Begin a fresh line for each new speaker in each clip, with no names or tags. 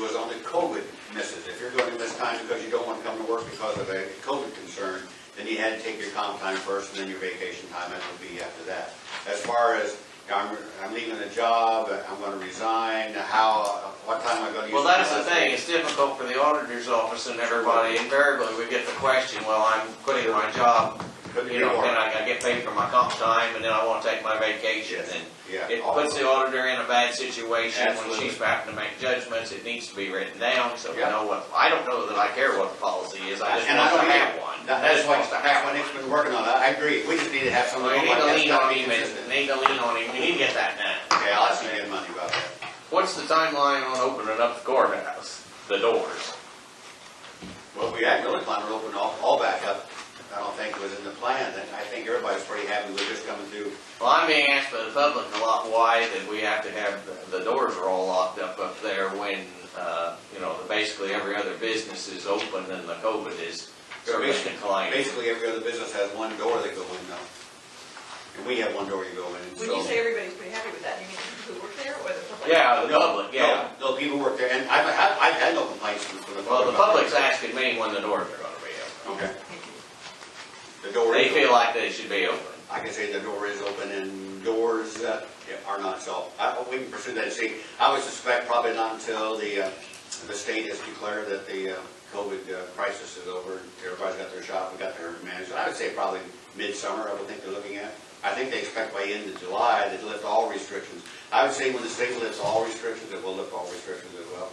was on the COVID misses. If you're going to miss time because you don't want to come to work because of a COVID concern, then you had to take your comp time first and then your vacation time, that would be after that. As far as, I'm, I'm leaving the job, I'm gonna resign, how, what time am I gonna use?
Well, that's the
my-
thing, it's difficult for the auditor's office and everybody, invariably, we get the question, well, I'm quitting my job,
Couldn't
you
be
know,
more.
can I I get paid for my comp time, and then I wanna take my vacation,
Yes.
and
Yeah.
it puts the auditor in a bad situation when
Absolutely.
she's having to make judgments, it needs to be written down, so we
Yeah.
know what, I don't know that I care what the policy is, I just
And I
want
don't
to
have
have one.
That-
I
That's
just
what,
want to have
that's what
one.
Nick's been working on, I I agree, we just need to have someone.
We need
like
to
that.
lean
That's gotta
on
be
him, and,
consistent.
need to lean on him, we need to get that done.
Okay, I'll ask you again Monday about that.
What's the timeline on opening up the courthouse, the doors?
Well, we had really planned to open all, all back up. I don't think it was in the plan, and I think everybody's pretty happy with this coming through.
Well, I'm being asked by the public a lot why that we have to have, the- the doors are all locked up up there when, uh, you know, basically every other business is open and the COVID is sort of declining.
Basically, every other business has one door they go in now. And we have one door you go in.
When you say everybody's pretty happy with that, you mean who work there or the public?
Yeah,
No,
the public, Uh, yeah.
No, no, people work there, and I've, I've, I've had no complaints from the public.
Well, the public's asking me when the doors are gonna be open.
Okay. The door
They
is.
feel
open.
like they should be open.
I can say the door is open and doors that are not so, I, we can pursue that and see. I would suspect probably not until the, uh, the state has declared that the, uh, COVID uh, crisis is over. Everybody's got their shop, we got their management. I would say probably midsummer, I would think they're looking at. I think they expect by end of July to lift all restrictions. I would say when the state lifts all restrictions, it will lift all restrictions as well.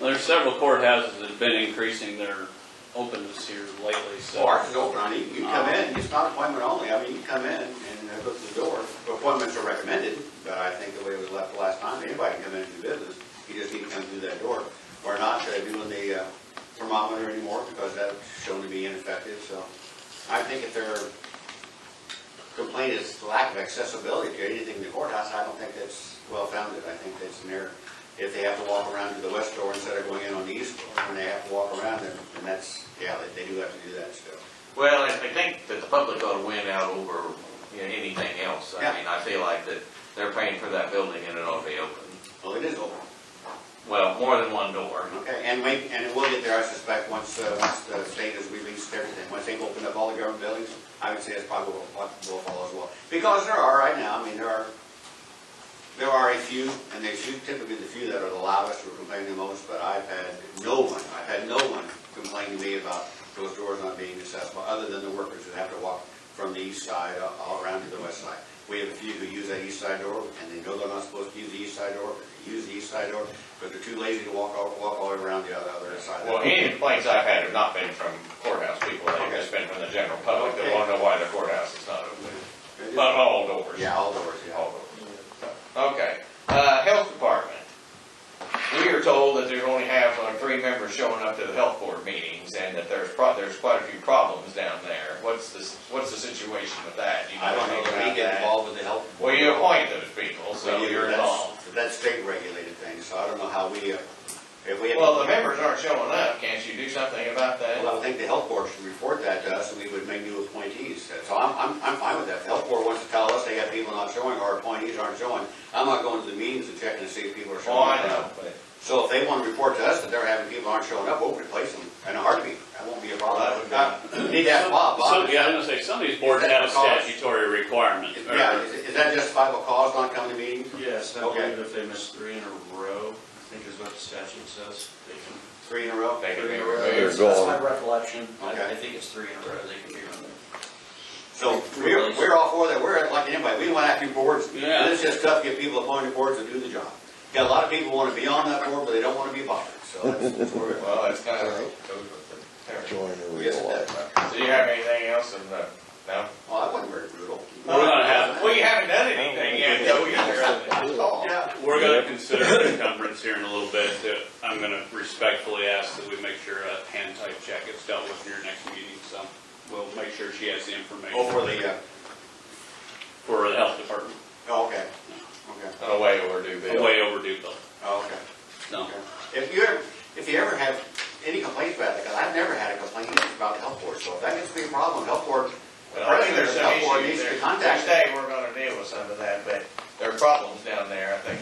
There's several courthouses that have been increasing their openness here lately, so.
Well, ours is open, I mean, you can come in, it's not appointment only, I mean, you come in and uh, go to the door. Appointments are recommended, but I think the way it was left the last time, anybody can come in and do business, you just need to come through that door. Or not, they're doing the uh, thermometer anymore, because that's shown to be ineffective, so. I think if their complaint is lack of accessibility to anything in the courthouse, I don't think that's well-founded, I think that's an error. If they have to walk around to the west door instead of going in on the east door, and they have to walk around, then then that's, yeah, they- they do have to do that still.
Well, I I think that the public ought to win out over, you know, anything else.
Yeah.
I mean, I feel like that they're paying for that building and it ought to be open.
Well, it is open.
Well, more than one door.
Okay, and we, and it will get there, I suspect, once, uh, once the state has released everything, once they've opened up all the government buildings, I would say it's probably will, will follow as well. Because there are right now, I mean, there are, there are a few, and they're few- typically the few that are the loudest or complain the most, but I've had no one, I've had no one complain to me about those doors not being accessible, other than the workers that have to walk from the east side all- all around to the west side. We have a few who use that east side door, and they know they're not supposed to use the east side door, but they use the east side door, but they're too lazy to walk all, walk all the way around the other, other side.
Well, any complaints I've had have not been from courthouse people, they've just been from the general public, they wanna know why the courthouse is not open. But all doors.
Yeah, all doors, yeah.
All doors. Okay, uh, health department. We are told that there's only have uh, three members showing up to the health board meetings and that there's pro, there's quite a few problems down there. What's the, what's the situation with that? Do you
I don't know
anything
that we
about
get
that?
involved with the health.
Well,
board.
you appoint those people, so
We do,
you're
but
involved.
that's- but That's state regulated thing, so I don't know how we, uh, if we. have-
Well, the members aren't showing up, can't you do something about that?
Well, I would think the health board should report that to us, and we would make new appointees. So I'm, I'm, I'm fine with that. If The health board wants to tell us they have people not showing, or appointees aren't showing. I'm not going to the meetings and checking to see if people are showing
Oh,
up.
I know, but.
So if they want to report to us that they're having people aren't showing up, we'll replace them in a heartbeat. That won't be a problem.
That
Need to ask Bob. Bob,
Some, yeah, I was gonna say, some of these boards have a statutory requirement.
is-
or-
Yeah, is is that justifiable cause not coming to meetings?
Yes, I
Okay.
believe if they miss three in a row, I think is what the statute says, they can.
Three in a row?
They can be removed.
That's that's my recollection, I
Okay.
I think it's three in a row, they can be removed.
So we're, we're all for that, we're like anybody, we want active boards,
Yeah.
it's just tough to get people appointed boards and do the job. Got a lot of people wanna be on that board, but they don't wanna be bothered, so that's, that's where we're at.
Well, it's kind of goes with the territory.
join the
Yes,
real
it
life.
does.
Do you have anything else in the, no?
Well, I wasn't very brutal.
We're gonna have,
Well, you haven't done anything yet, though, either.
Oh, Yeah.
we're gonna consider an encumbrance here in a little bit, that I'm gonna respectfully ask that we make sure a hand type check is dealt with in your next meeting, so we'll make sure she has the
Oh,
information
for the, uh,
for the health department.
oh, okay, okay,
No way overdue, Bill.
Way overdue, though.
oh, okay.
No.
Okay. If you ever, if you ever have any complaints about it, because I've never had a complaint about the health board, so if that gets to be a problem, health board,
Well, I think there's
the
some
health board
issues
needs to
there.
be contacted.
Next day, we're gonna deal with some of that, but there are problems down there, I think,